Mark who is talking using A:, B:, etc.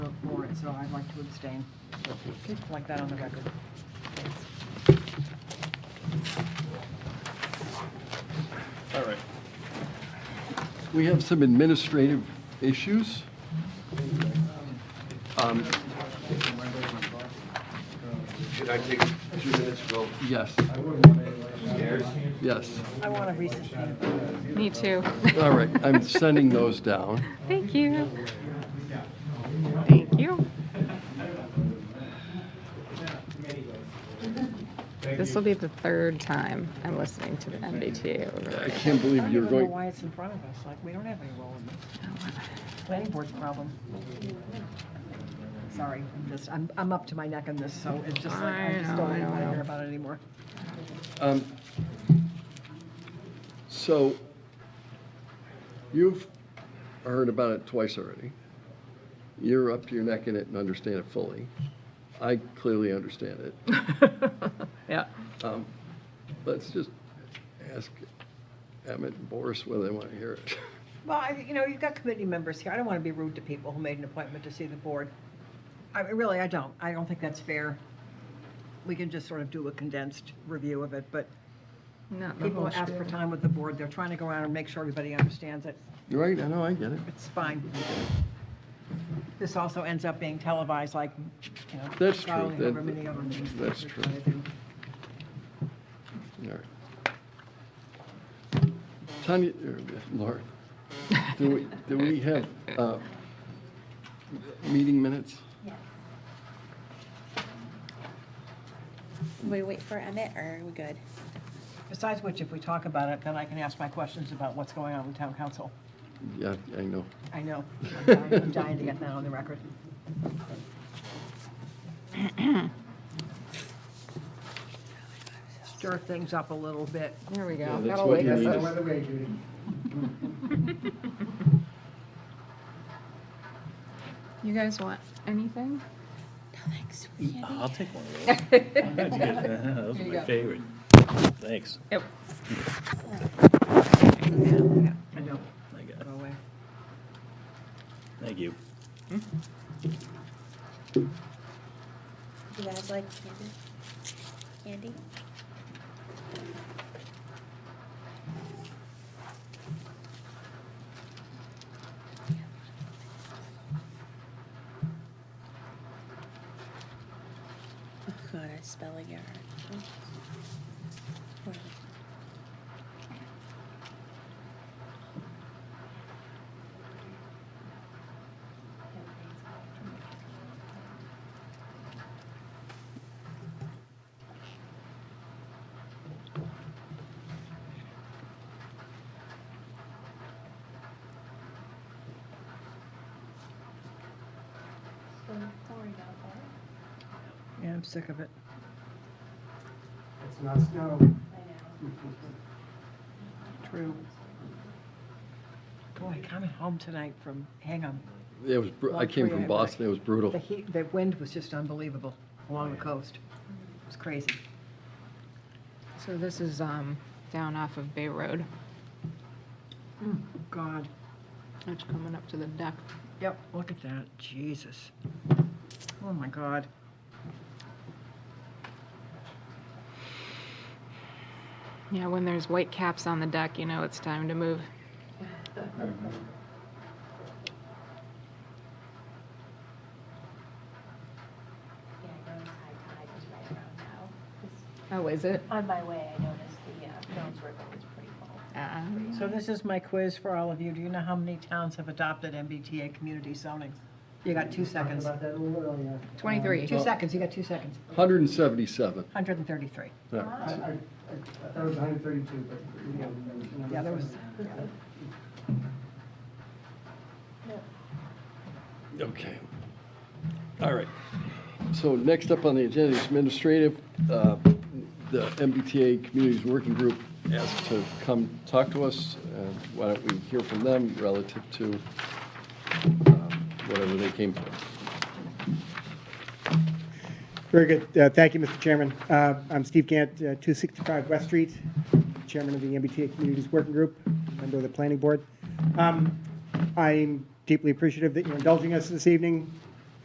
A: so I'd like to abstain. Just like that on the record.
B: All right.
C: We have some administrative issues. Um,
D: Can I take two minutes, Bill?
C: Yes,
D: Yes.
C: yes.
A: I want to resuscitate.
E: Me too.
C: All right, I'm sending those down.
E: Thank you. Thank you. This will be the third time I'm listening to the MBTA
C: I
E: override.
C: can't
A: I
C: believe
A: don't
C: you're
A: even know
C: going,
A: why it's in front of us, like, we don't have any role in this. Planning board's problem. Sorry, I'm just, I'm, I'm up to my neck in this, so it's just like, I
E: I
A: just
E: know,
A: don't
E: I
A: even want to
E: know.
A: hear about it anymore.
C: um, so you've heard about it twice already. You're up to your neck in it and understand it fully. I clearly understand it.
E: Yeah.
C: Um, Let's just ask Emmett and Boris whether they want to hear it.
A: Well, I, you know, you've got committee members here. I don't want to be rude to people who made an appointment to see the board. I mean, really, I don't. I don't think that's fair. We can just sort of do a condensed review of it, but
E: Not the
A: people
E: whole
A: ask for
E: spiel.
A: time with the board. They're trying to go around and make sure everybody understands it.
C: Right, I know, I get it.
A: It's fine. This also ends up being televised like, you know.
C: That's true.
A: probably however
C: That-
A: many other meetings that
C: that's
A: we're
C: true.
A: trying to do.
C: All right. Tanya, er, Lauren, do we, do we have uh, meeting minutes?
F: We wait for Emmett, or are we good?
A: Besides which, if we talk about it, then I can ask my questions about what's going on with town council.
C: Yeah, I know.
A: I know. I'm dying- I'm dying to get that on the record. Stir things up a little bit.
E: There we
C: Yeah,
E: go.
C: that's
E: That'll
C: what
E: wake
C: you
E: us
C: need
E: up.
C: is-
E: You guys want anything?
F: No, thanks. We can't
B: I'll
F: eat.
B: take one of those. Those are
E: Here you
B: my
E: go.
B: favorite. Thanks.
E: Yep.
A: I know,
B: I got it.
A: go away.
B: Thank you.
F: You guys like candy? Candy? Oh god, I spell it error. Oh. Horrible.
A: Yeah, I'm sick of it.
G: It's not snow.
A: True. Boy, coming home tonight from Hingham,
C: It was, bru- I came from Boston, it was
A: the
C: brutal.
A: heat, the wind was just unbelievable along the coast. It was crazy.
E: So this is um, down off of Bay Road.
A: God.
E: It's coming up to the deck.
A: Yep. Look at that, Jesus. Oh, my God.
E: Yeah, when there's white caps on the deck, you know it's time to move. Oh, is it?
H: On my way, I noticed the uh, Jones River was pretty full.
E: Uh,
A: So this is my quiz for all of you. Do you know how many towns have adopted MBTA community zoning? You got two seconds.
G: About that a little earlier.
E: 23.
A: Two seconds, you got two seconds.
C: 177.
A: 133.
C: All
G: I,
C: right.
G: I, I thought it was hundred thirty-two, but. you know, you know,
A: Yeah, there was,
C: Okay. All right. So next up on the agenda is administrative. Uh, The MBTA Communities Working Group asked to come talk to us. Uh, Why don't we hear from them relative to um, whatever they came for?
G: Very good. Uh, Thank you, Mr. Chairman. Uh, I'm Steve Gant, uh, 265 West Street, Chairman of the MBTA Communities Working Group, member of the Planning Board. Um, I'm deeply appreciative that you're indulging us this evening.